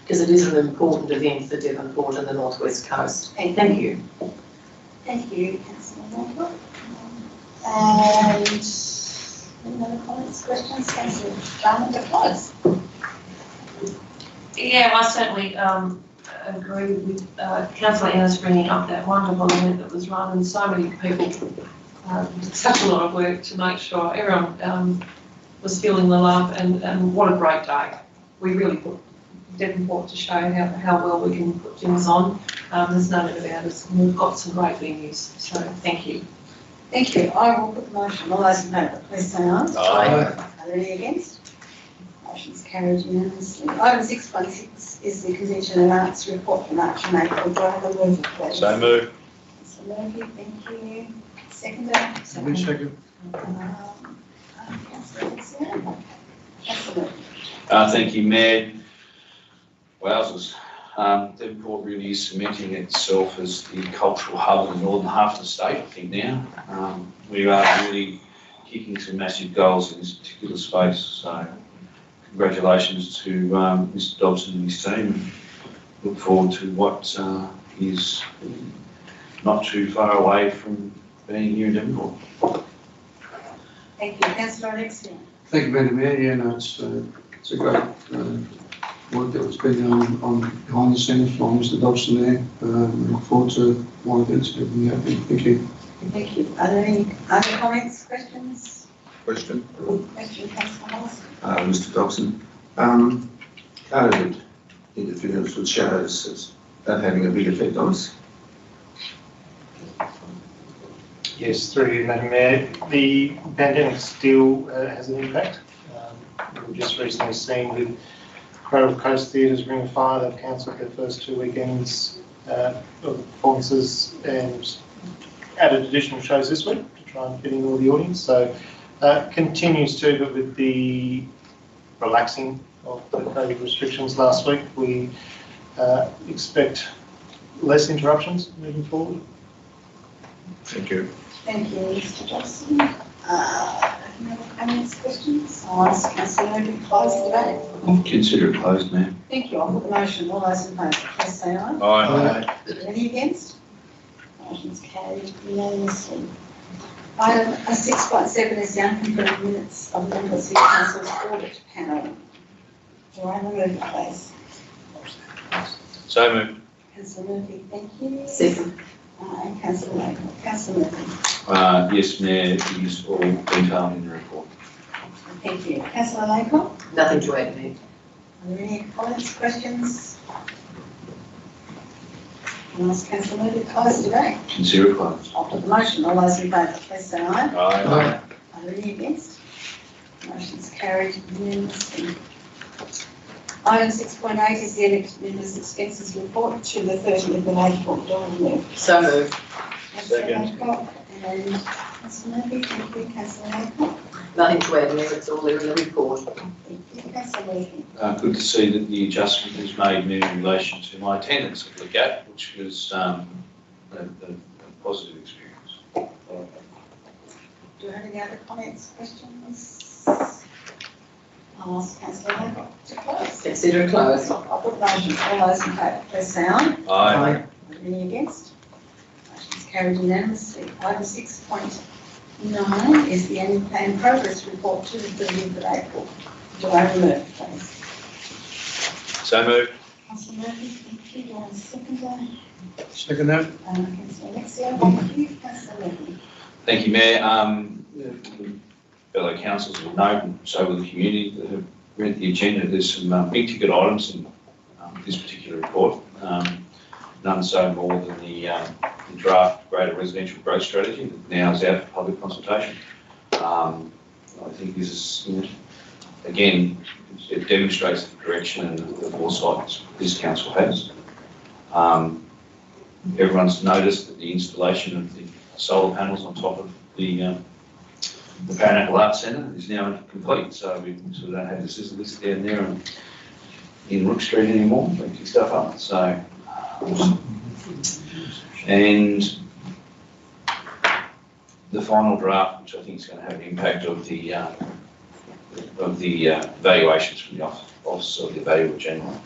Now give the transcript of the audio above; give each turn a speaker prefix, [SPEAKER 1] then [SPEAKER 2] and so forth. [SPEAKER 1] because it is an important event for Devonport and the northwest coast.
[SPEAKER 2] Okay,
[SPEAKER 1] Thank you.
[SPEAKER 2] Thank you, Councillor Norfolk. And any other comments, questions? Councillor Jarman, to close.
[SPEAKER 3] Yeah, I certainly um, agree with uh, councillor Ennis bringing up that wonderful event that was run and so many people um, did such a lot of work to make sure everyone um, was feeling the love and, and what a great day. We really put Devonport to show how, how well we can put things on. Um, There's no doubt about it. and We've got some great venues, so thank you.
[SPEAKER 2] Thank you. I will put the motion. All those in favour, please say aye. Are there any against? Motion's carried unanimously. Item six point six is the Convention and Arts Report for March and April. Do I have a mover, please?
[SPEAKER 4] So move.
[SPEAKER 2] Councillor Murphy, thank you. Seconder?
[SPEAKER 3] Second.
[SPEAKER 2] Um, Councillor Alexander? Councillor Murphy?
[SPEAKER 5] Uh, thank you, Mayor. Wowzers. Um, Devonport really is cementing itself as the cultural hub of the northern half of the state, I think now. Um, we are really kicking some massive goals in this particular space, so congratulations to, um, Mr Dobson and his team. Look forward to what, uh, is not too far away from being here in Devonport.
[SPEAKER 2] Thank you. Councillor Alexander?
[SPEAKER 6] Thank you, Madam Mayor. Yeah, no, it's, uh, it's a great, uh, work that was been on, on behind the scenes from Mr. Dobson there. Um, look forward to more events, everything happening. Thank you.
[SPEAKER 2] Thank you. Are there any other comments, questions?
[SPEAKER 7] Question,
[SPEAKER 2] Question, Councillor Hollis?
[SPEAKER 7] uh, Mr. Dobson. Um, COVID interference with shadows, is that having a big effect on us?
[SPEAKER 8] Yes, through you, Madam Mayor. The pandemic still uh, has an impact. Um, We've just recently seen with Crow Coast Theatre's Ring of Fire, they've cancelled their first two weekends uh, of performances and added additional shows this week to try and fit in all the audience. So uh, continues to, but with the relaxing of the COVID restrictions last week, we uh, expect less interruptions moving forward.
[SPEAKER 7] Thank you.
[SPEAKER 2] Thank you, Mr. Johnson. Uh, any other comments, questions? I'll ask Councillor Murphy to close the debate.
[SPEAKER 5] Consider it closed, Mayor.
[SPEAKER 2] Thank you. I'll put the motion. All those in favour, please say aye.
[SPEAKER 4] Aye.
[SPEAKER 2] Any against? Motion's carried unanimously. Item six point seven is the unconfirmed minutes of the Liverpool City Council's audit panel. Do I have a mover, please?
[SPEAKER 4] So move.
[SPEAKER 2] Councillor Murphy, thank you.
[SPEAKER 1] Second.
[SPEAKER 2] Uh, And Councillor Logan. Councillor Murphy.
[SPEAKER 5] Uh, yes, Mayor, it is all detailed in the report.
[SPEAKER 2] Thank you. Councillor Laycock, are
[SPEAKER 1] Nothing to add, Mayor.
[SPEAKER 2] there any comments, questions? Can I ask Councillor Murphy to close the debate?
[SPEAKER 5] Consider it closed.
[SPEAKER 2] I'll put the motion. All those in favour, please say aye.
[SPEAKER 4] Aye.
[SPEAKER 2] Are there any against? Motion's carried unanimously. Item six point eight is the elected members' expenses report to the thirtieth of April. Do I move?
[SPEAKER 1] So moved.
[SPEAKER 2] Councillor Adcock and uh, Councillor Murphy, thank you, Councillor Adcock.
[SPEAKER 1] Nothing to add, Mayor. It's all there in the report.
[SPEAKER 2] Thank you, Councillor Murphy.
[SPEAKER 5] Uh, good to see that the adjustment was made Mayor, in relation to my attendance at the gap, which was, um, a, a a positive experience.
[SPEAKER 2] Do you have any other comments, questions? I'll ask Councillor Adcock to close.
[SPEAKER 1] Consider it closed.
[SPEAKER 2] I'll put motion, all those in favour, please say aye.
[SPEAKER 4] Aye.
[SPEAKER 2] Are there Any against? Motion's carried unanimously. Item six point nine is the annual plan progress report to the thirtieth of April. Do I have a mover, please?
[SPEAKER 4] So move.
[SPEAKER 2] Councillor Murphy, thank you. Do I have a seconder?
[SPEAKER 6] Second that.
[SPEAKER 2] Uh, Councillor Alexia, thank you. Councillor Murphy.
[SPEAKER 5] Thank you, Mayor. Um, fellow councillors will know, and so will the community that have read the agenda, there's some uh, big ticket items in um, this particular report. Um, None so more than the um, the draft greater residential growth strategy that now is out for public consultation. Um, I think this is, you know, again, it demonstrates the direction and the foresight this council has. Um, Everyone's noticed that the installation of the solar panels on top of the, um, the Paranacle Arts Centre is now complete, so we sort of don't have the sizzle list down there and in Rook Street anymore, picking stuff up, so. um, And the final draft, which I think is going to have an impact of the, uh, of the uh, valuations from the Office Office of the Valuer General.